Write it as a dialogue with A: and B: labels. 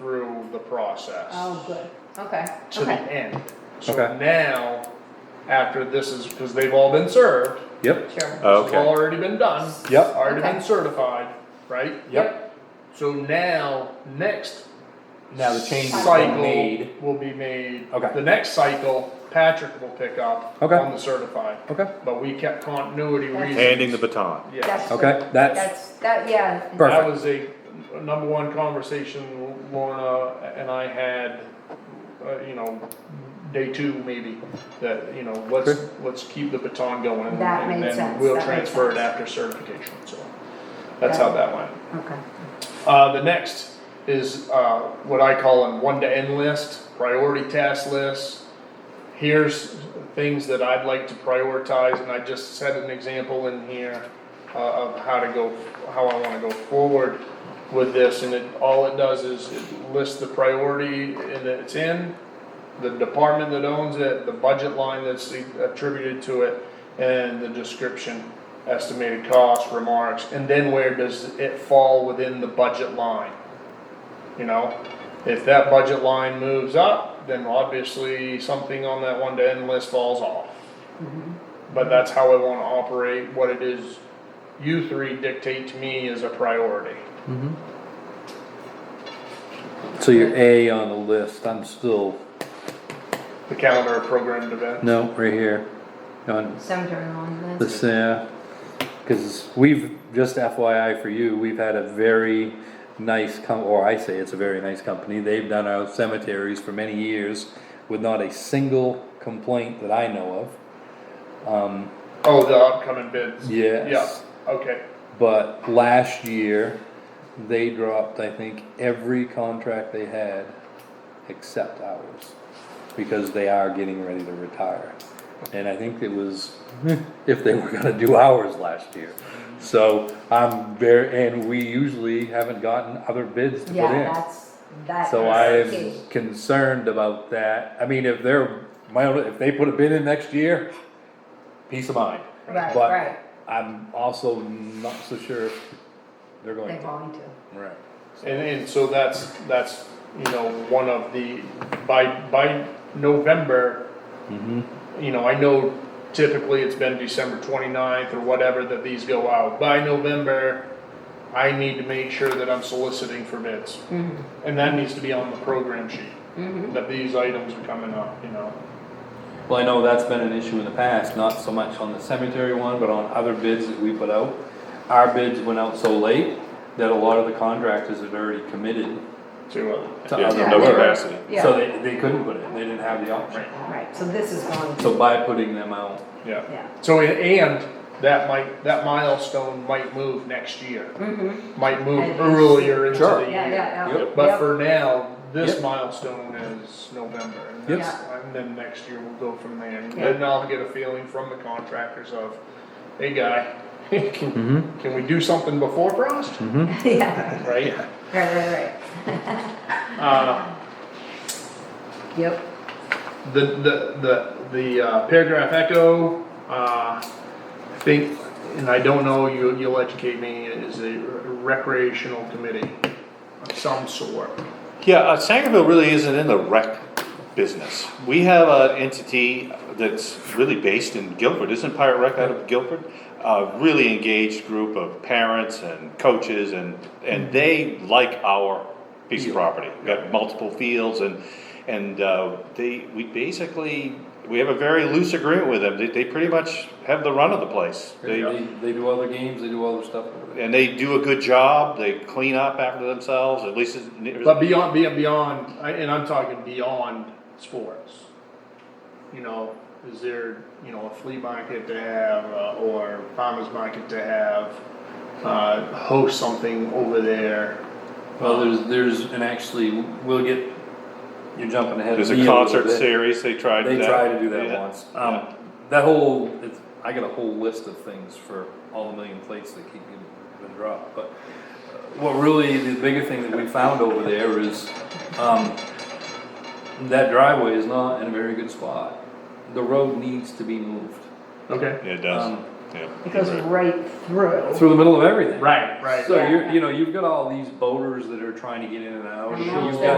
A: through the process
B: Oh, good, okay,
A: to the
B: okay,
A: end. So
C: Okay.
A: now, after this is because they've all been served,
C: Yep,
B: sure.
A: it's all
D: Oh, Okay,
A: already been done,
C: yep,
A: already
B: Okay.
A: been certified, right?
C: yep.
A: So now, next
C: Now the change is
A: cycle
C: made.
A: will be made.
C: Okay.
A: The next cycle, Patrick will pick up
C: Okay.
A: on the certified,
C: Okay,
A: but we kept continuity
B: That's-
A: reasons.
D: handing the baton.
A: Yeah,
C: okay, that's,
B: That's, that, yeah.
C: Perfect.
A: that was a a number one conversation Lorna and I had, uh, you know, day two maybe, that, you know, let's,
C: Sure.
A: let's keep the baton going. and
B: That made
A: then
B: sense,
A: We'll
B: that made
A: transfer it
B: sense.
A: after certification, so, that's how
B: Yeah.
A: that went.
B: Okay,
A: Uh, the next is, uh, what I call an one-to-end list, priority task list. Here's things that I'd like to prioritize, and I just set an example in here uh, of how to go, how I wanna go forward with this, and it, all it does is it lists the priority and it's in, the department that owns it, the budget line that's attributed to it, and the description, estimated cost, remarks, and then where does it fall within the budget line? You know, if that budget line moves up, then obviously something on that one-to-end list falls off. But that's how I wanna operate, what it is you three dictate to me is a priority.
C: Mm-hmm. so your A on the list, I'm still,
A: The calendar of programmed events.
C: no, right here. On
B: cemetery lawn list,
C: this, uh, cause we've, just FYI for you, we've had a very nice com, or I say it's a very nice company. They've done our cemeteries for many years with not a single complaint that I know of. Um,
A: Oh, the upcoming bids.
C: Yes.
A: Yeah, okay.
C: But last year, they dropped, I think, every contract they had except ours. Because they are getting ready to retire. And I think it was if they were gonna do ours last year. So I'm very, and we usually haven't gotten other bids to put in.
B: yeah, that's, that's.
C: So I'm
B: key.
C: concerned about that. I mean, if they're, my, only- if they put a bid in next year, peace of mind.
B: Right, right.
C: But I'm also not so sure if they're going
B: They're
C: to.
B: going to,
C: Right.
A: And, and so that's, that's, you know, one of the, by, by November, you know, I know typically it's been December 29th or whatever that these go out. By November, I need to make sure that I'm soliciting for bids.
B: Mm-hmm.
A: And that needs to be on the program sheet, that these items are coming up, you know.
C: Well, I know that's been an issue in the past, not so much on the cemetery one, but on other bids that we put out. Our bids went out so late that a lot of the contractors had already committed
A: To, uh,
C: to
D: Yeah,
C: other
D: no
C: work.
D: capacity.
B: yeah,
C: So they, they couldn't put it, they didn't have the option.
B: right, so this is going to,
C: So by putting them out,
A: yeah.
B: yeah.
A: So, a- and that might, that milestone might move next year,
B: Mm-hmm,
A: might move
B: And-
A: earlier into
C: Sure.
A: the year.
B: yeah, yeah, yeah.
C: Yep.
A: But
B: Yep.
A: for now, this
C: Yep.
A: milestone is November, and
C: Yep.
A: that's, and then next year we'll go from there. And
B: Yeah.
A: then I'll get a feeling from the contractors of, hey, guy, can,
C: Mhm.
A: can we do something before frost?
C: Mm-hmm.
B: Yeah,
A: Right?
B: right, right,
A: Uh,
B: right, yep,
A: the, the, the, the uh, paragraph echo, uh, I think, and I don't know, you, you'll educate me, is a recreational committee of some sort.
D: Yeah, uh, Sangerville really isn't in the rec business. We have an entity that's really based in Guilford, isn't Pirate Rec out of Guilford? A really engaged group of parents and coaches and, and they like our piece of property. We've got multiple fields and, and, uh, they, we basically, we have a very loose agreement with them. They, they pretty much have the run of the place.
C: they,
D: They,
C: they do other games, they do other stuff.
D: and they do a good job, they clean up after themselves, at least. it's-
A: But beyond, beyond, beyond, I- and I'm talking beyond sports. You know, is there, you know, a flea market to have, uh, or farmer's market to have, uh, host something over there?
C: Well, there's, there's, and actually, we'll get, you're jumping ahead of
D: There's
C: me a
D: a
C: little
D: concert
C: bit.
D: series, they tried that.
C: They tried to do that
D: Yeah.
C: once.
D: Yeah.
C: Um, that whole, it's, I got a whole list of things for all the million plates that keep getting been dropped, but uh, what really, the bigger thing that we found over there is, um, that driveway is not in a very good spot. The road needs to be moved.
A: Okay,
D: Yeah, It does,
C: Um,
D: Yeah,
B: It goes
D: you're right.
B: right through.
C: Through the middle of everything.
A: Right, right.
C: So you're, you know, you've got all these boaters that are trying to get in and out,
B: I know.
C: you've got